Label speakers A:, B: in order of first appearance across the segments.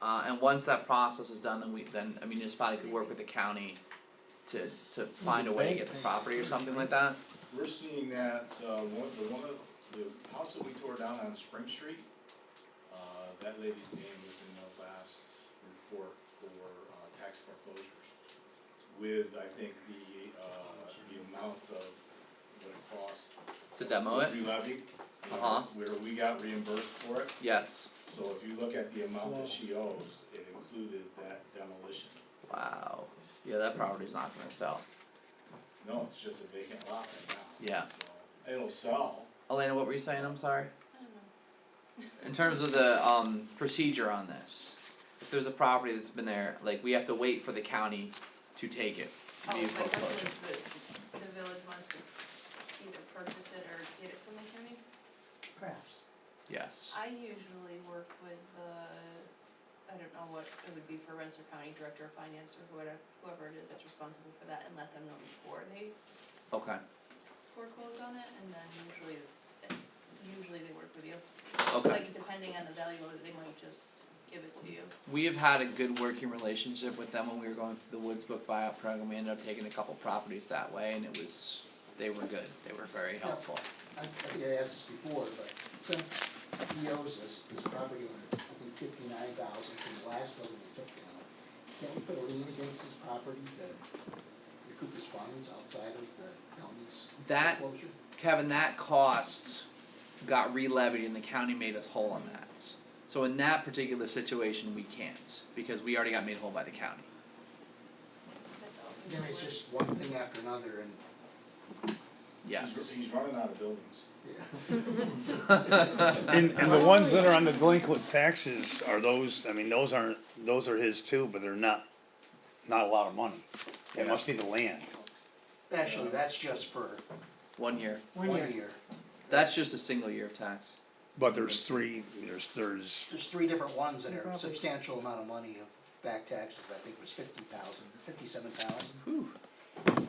A: Uh, and once that process is done, then we, then a municipality could work with the county to, to find a way to get the property or something like that.
B: We're seeing that, uh, one, the one, of- the house that we tore down on Spring Street, uh, that lady's name was in the last report for, uh, tax foreclosures. With, I think, the, uh, the amount of what it cost.
A: To demo it?
B: Re-levy.
A: Uh-huh.
B: Where we got reimbursed for it,
A: Yes,
B: so if you look at the amount that she owes, it included that demolition.
A: wow, yeah, that property's not gonna sell.
B: No, it's just a vacant lot right now.
A: Yeah.
B: So, it'll sell,
A: Elena, what were you saying, I'm sorry? In terms of the, um, procedure on this, if there's a property that's been there, like, we have to wait for the county to take it. to
C: Oh,
A: do
C: my
A: foreclosure.
C: question is the, the village wants to either purchase it or get it from the county?
D: Perhaps.
A: Yes,
C: I usually work with the, I don't know what it would be for Rensselaer County Director of Finance or whoever, whoever it is that's responsible for that and let them know before they
A: okay,
C: foreclose on it and then usually, usually they work with you.
A: okay.
C: Like depending on the value of it, they might just give it to you.
A: We have had a good working relationship with them when we were going through the Woods Book buyout program, we ended up taking a couple properties that way, and it was, they were good, they were very helpful.
D: I, I think I asked this before, but since he owes us this property on, I think fifty-nine thousand from the last building we took down, can we put a lien against his property to recoup his funds outside of the county's
A: That
D: foreclosure?
A: Kevin, that cost got re-levied and the county made us whole on that. So in that particular situation, we can't, because we already got made whole by the county.
C: That's how it
D: I mean, it's
C: works.
D: just one thing after another and,
B: he's,
A: Yes.
B: he's running out of buildings.
D: yeah.
E: And, and the ones that are on the delinquent taxes are those, I mean, those aren't, those are his too, but they're not, not a lot of money. It must be the land.
D: Actually, that's just for
A: One year.
D: one year.
A: That's just a single year of tax.
E: But there's three, there's, there's,
D: There's three different ones that are substantial amount of money of back taxes, I think it was fifty thousand, fifty-seven thousand.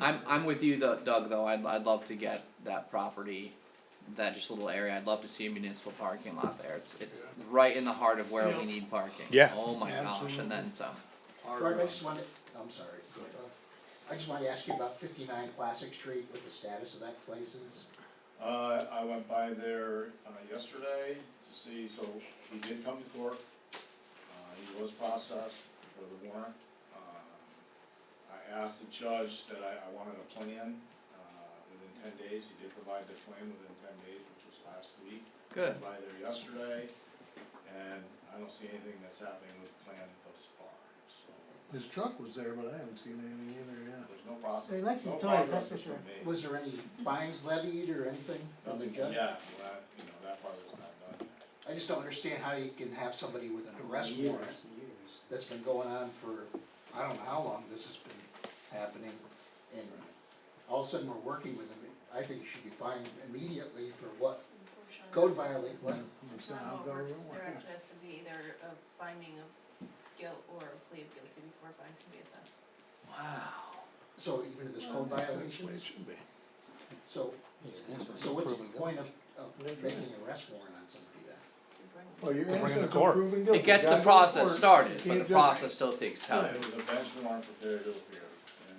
A: I'm I'm with you though, Doug though, I'd I'd love to get that property, that just little area, I'd love to see a municipal parking lot there, it's it's right in the heart of where we need parking.
E: Yeah.
A: Oh my gosh, and then some.
D: George, I just wanted, I'm sorry, uh, I just wanted to ask you about fifty-nine Classic Street, what the status of that place is.
B: Uh, I went by there, uh, yesterday to see, so he did come to court. Uh, he was processed for the warrant. Um, I asked the judge that I, I wanted a plan, uh, within ten days. He did provide the plan within ten days, which was last week.
A: Good.
B: By there yesterday, and I don't see anything that's happening with the plan thus far, so
F: His truck was there, but I haven't seen anything in there
B: there's no process, no
G: They like his toys,
B: progress
G: that's for
B: has
G: sure.
B: been made.
D: Was there any fines levied or anything from the
B: Nothing,
D: judge?
B: yeah, well, that- you know, that part is not done.
D: I just don't understand how you can have somebody with an arrest warrant that's been going on for, I don't know how long this has been happening, and all of a sudden we're working with them. I think you should be fined immediately for what,
C: Unfortunately.
D: code violate, what,
C: It's not how it works, there actually has to be either a finding of guilt or a plea of guilty before fines can be assessed.
D: so even if there's code
F: yet. That's the way it
D: violations,
F: should be.
D: so, so what's the point of, of making an arrest warrant on somebody then?
C: To bring-
F: Well, you're
E: Bring it to
F: innocent until
E: court.
F: proven guilty.
A: It gets the
F: Gotta go to
A: process
F: court.
A: started,
F: You
A: but the
F: can't just-
A: process still takes time.
B: It was a bench warrant for failure to appear, and,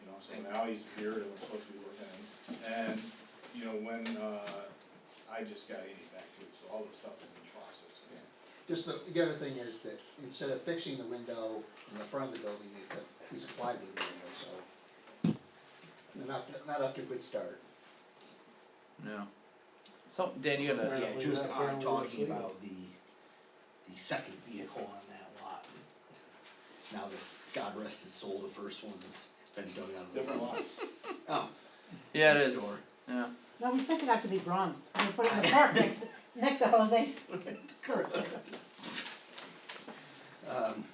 B: you know, so now he's appeared, and we're supposed to be with him. And, you know, when, uh, I just got eighty back too, so all this stuff has been processed.
D: Just the, the other thing is that instead of fixing the window in the front of the building, they put, he's applied with the window, so. Not, not up to a good start.
A: No. So Dan, you had a
F: Right.
H: Yeah, just
F: Apparently
H: on
F: that's
H: talking
F: legal.
H: about the, the second vehicle on that lot. Now that God rest its soul, the first one's been dug out of the.
B: Different lots.
H: Oh.
A: yeah, it
H: next
A: is.
H: door.
A: Yeah.
G: No, we sent it out to be bronzed, and we put it in the park next, next to Jose's.
H: Um,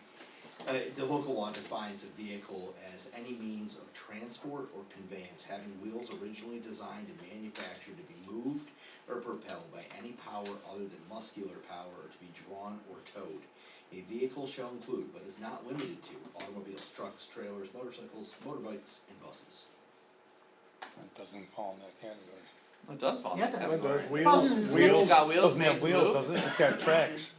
H: uh, the local law defines a vehicle as any means of transport or conveyance having wheels originally designed and manufactured to be moved or propelled by any power other than muscular power or to be drawn or towed. A vehicle shall include, but is not limited to, automobiles, trucks, trailers, motorcycles, motorbikes, and buses.
E: that doesn't fall in that category.
A: It does fall in
G: Yeah,
A: that
G: it does.
A: category.
F: Those
G: Wheels
F: wheels,
A: It's
F: wheels,
A: got wheels,
E: Doesn't have
A: makes
E: wheels,
A: move.
E: does it? It's got tracks.